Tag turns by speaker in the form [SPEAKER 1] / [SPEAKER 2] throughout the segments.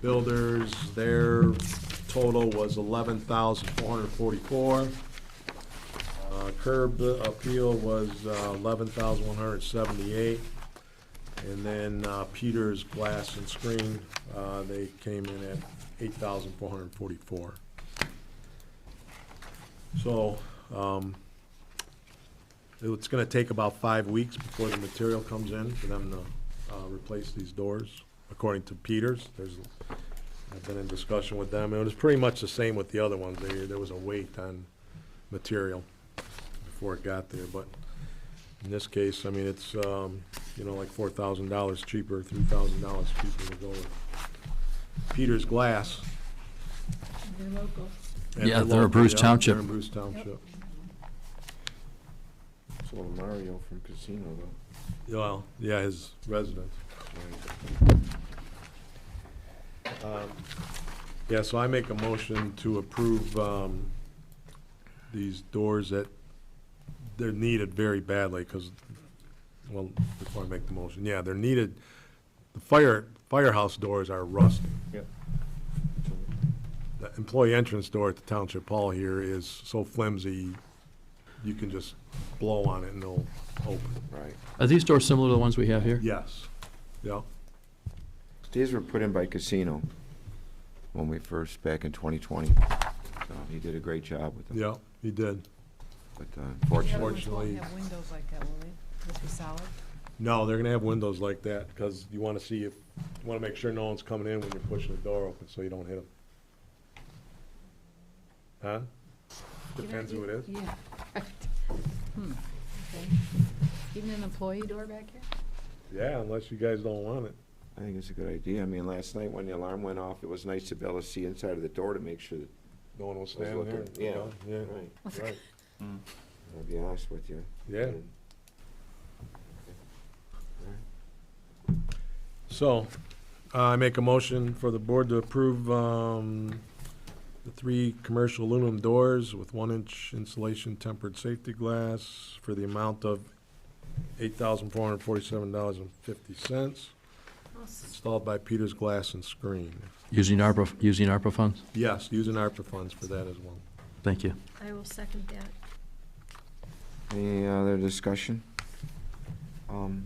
[SPEAKER 1] builders, their total was eleven thousand four hundred forty-four. Uh, Curb appeal was uh, eleven thousand one hundred seventy-eight. And then uh, Peters Glass and Screen, uh, they came in at eight thousand four hundred forty-four. So, um, it's gonna take about five weeks before the material comes in for them to, uh, replace these doors, according to Peters. There's, I've been in discussion with them, and it was pretty much the same with the other ones. There, there was a wait on material before it got there, but in this case, I mean, it's, um, you know, like four thousand dollars cheaper, three thousand dollars cheaper to go with Peters Glass.
[SPEAKER 2] They're local.
[SPEAKER 1] and
[SPEAKER 3] Yeah, they're a
[SPEAKER 1] local,
[SPEAKER 3] Bruce
[SPEAKER 1] yeah,
[SPEAKER 3] Township.
[SPEAKER 1] They're in Bruce Township.
[SPEAKER 4] So Mario from Casino, though.
[SPEAKER 1] Well, yeah, his residence. Um, Yeah, so I make a motion to approve um, these doors that, they're needed very badly, because, well, before I make the motion, yeah, they're needed, the fire, firehouse doors are rusty.
[SPEAKER 4] Yep.
[SPEAKER 1] The employee entrance door at the Township Hall here is so flimsy, you can just blow on it and it'll open.
[SPEAKER 4] Right.
[SPEAKER 3] Are these doors similar to the ones we have here?
[SPEAKER 1] Yes, yeah,
[SPEAKER 4] These were put in by Casino when we first, back in 2020. So He did a great job with them.
[SPEAKER 1] yeah, he did.
[SPEAKER 4] But uh,
[SPEAKER 2] The
[SPEAKER 4] unfortunately,
[SPEAKER 2] other ones won't
[SPEAKER 1] Unfortunately-
[SPEAKER 2] have windows like that, will they? This is solid.
[SPEAKER 1] No, they're gonna have windows like that, because you wanna see if, you wanna make sure no one's coming in when you're pushing the door open, so you don't hit them. Huh? Depends who it is.
[SPEAKER 2] Yeah. Hmm, okay. Even an employee door back here?
[SPEAKER 1] Yeah, unless you guys don't want it.
[SPEAKER 4] I think it's a good idea. I mean, last night when the alarm went off, it was nice to be able to see inside of the door to make sure that,
[SPEAKER 1] No one will stand there.
[SPEAKER 4] looking, yeah.
[SPEAKER 1] Yeah,
[SPEAKER 4] right,
[SPEAKER 1] right,
[SPEAKER 4] I'll be honest with you.
[SPEAKER 1] yeah.
[SPEAKER 4] And-
[SPEAKER 1] So, uh, I make a motion for the board to approve, um, the three commercial aluminum doors with one-inch insulation tempered safety glass for the amount of eight thousand four hundred forty-seven dollars and fifty cents. Installed by Peters Glass and Screen.
[SPEAKER 3] Using ARPA, using ARPA funds?
[SPEAKER 1] Yes, using ARPA funds for that as well.
[SPEAKER 3] Thank you.
[SPEAKER 5] I will second that.
[SPEAKER 4] Any other discussion? Um,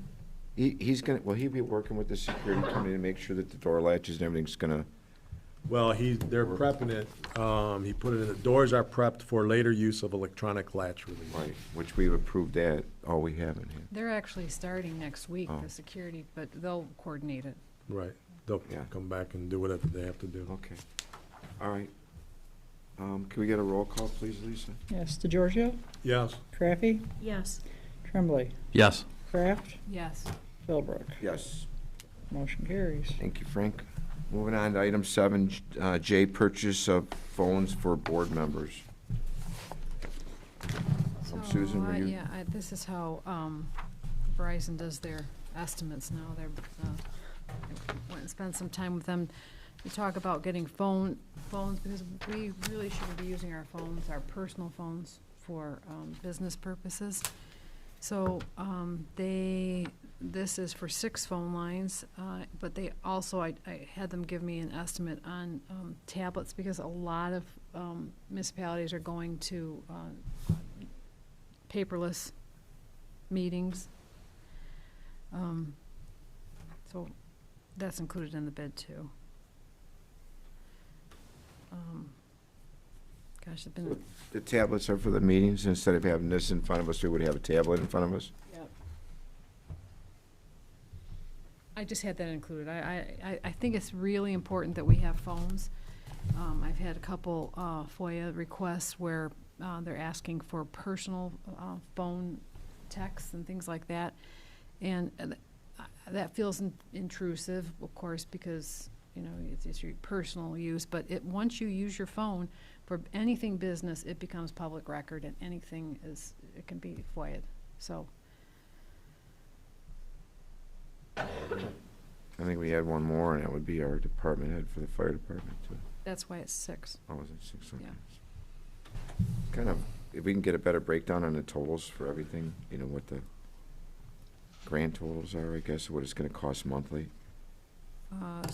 [SPEAKER 4] He, he's gonna, will he be working with the security company to make sure that the door latches and everything's gonna,
[SPEAKER 1] Well, he, they're prepping it, um, he put it in, the doors are prepped for later use of electronic latch release.
[SPEAKER 4] right, which we've approved that, oh, we haven't here.
[SPEAKER 2] They're actually starting next week,
[SPEAKER 4] Oh.
[SPEAKER 2] the security, but they'll coordinate it.
[SPEAKER 1] Right, they'll
[SPEAKER 4] Yeah.
[SPEAKER 1] come back and do whatever they have to do.
[SPEAKER 4] Okay, all right. Um, Can we get a roll call, please, Lisa?
[SPEAKER 6] Yes, DeGiorgio,
[SPEAKER 1] Yes,
[SPEAKER 6] Craffey,
[SPEAKER 5] Yes,
[SPEAKER 6] Tremblay,
[SPEAKER 3] Yes.
[SPEAKER 6] Kraft,
[SPEAKER 2] Yes.
[SPEAKER 6] Philbrook.
[SPEAKER 4] Yes.
[SPEAKER 6] Motion carries.
[SPEAKER 4] Thank you, Frank. Moving on to item seven, uh, J, purchase of phones for board members. Um, Susan, will
[SPEAKER 2] Oh, I-
[SPEAKER 4] you-
[SPEAKER 2] Yeah, I, this is how, um, Verizon does their estimates now, they're, uh, I went and spent some time with them to talk about getting phone, phones, because we really shouldn't be using our phones, our personal phones, for, um, business purposes. So, um, they, this is for six phone lines, uh, but they also, I, I had them give me an estimate on, um, tablets, because a lot of, um, municipalities are going to, uh, paperless meetings. Um, So that's included in the bid too. Um, Gosh, it's been,
[SPEAKER 4] The tablets are for the meetings, instead of having this in front of us, we would have a tablet in front of us?
[SPEAKER 2] I just had that included. I, I, I- I think it's really important that we have phones. Um, I've had a couple uh, FOIA requests where uh, they're asking for personal uh, phone texts and things like that. And uh, th- uh, that feels in- intrusive, of course, because, you know, it's, it's your personal use. But it, once you use your phone for anything business, it becomes public record and anything is, it can be FOIA'd. So,
[SPEAKER 4] I think we had one more, and that would be our department head for the fire department, too.
[SPEAKER 2] that's why it's six.
[SPEAKER 4] Oh, was it six?
[SPEAKER 2] Yeah.
[SPEAKER 4] okay. Kind of, if we can get a better breakdown on the totals for everything, you know, what the grand totals are, I guess, what it's gonna cost monthly.
[SPEAKER 2] Uh,